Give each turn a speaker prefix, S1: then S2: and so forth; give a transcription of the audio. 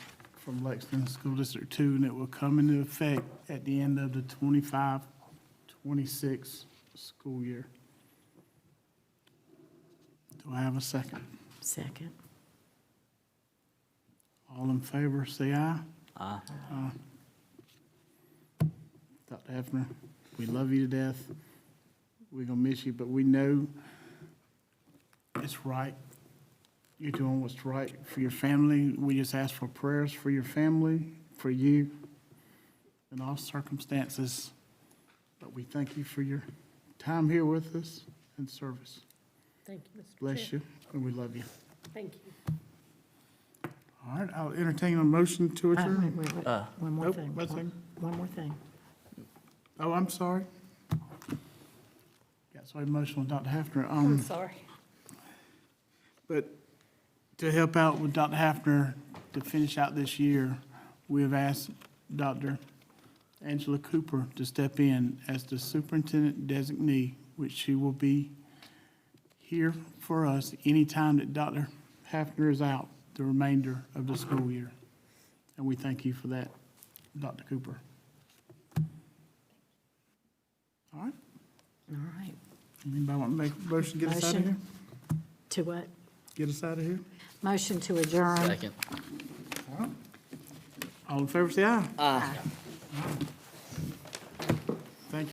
S1: from Lexington School District Two, and it will come into effect at the end of the 25-26 school year. Do I have a second?
S2: Second.
S1: All in favor, say aye.
S3: Aye.
S1: Aye. Dr. Hefner, we love you to death. We're gonna miss you, but we know it's right. You're doing what's right for your family. We just ask for prayers for your family, for you, in all circumstances. But we thank you for your time here with us and service.
S4: Thank you, Mr. Chair.
S1: Bless you, and we love you.
S4: Thank you.
S1: All right, I'll entertain a motion to
S2: Uh, wait,
S1: adjourn.
S2: wait, wait.
S3: Uh.
S2: One more
S1: Nope,
S2: thing.
S1: that's
S2: One- One more thing.
S1: Oh, I'm sorry. Got so emotional, Dr. Hafner.
S4: I'm
S2: Hmm.
S1: Um,
S4: sorry.
S1: but to help out with Dr. Hafner to finish out this year, we have asked Dr. Angela Cooper to step in as the superintendent designee, which she will be here for us anytime that Dr. Hafner is out the remainder of the school year. And we thank you for that, Dr. Cooper. All right.
S2: All right.
S1: Anybody want to make a motion, to get us out of
S2: Motion.
S1: here?
S2: To what?
S1: Get us out of here?
S2: Motion to adjourn.
S3: Second.
S1: All in favor, say aye.
S3: Aye.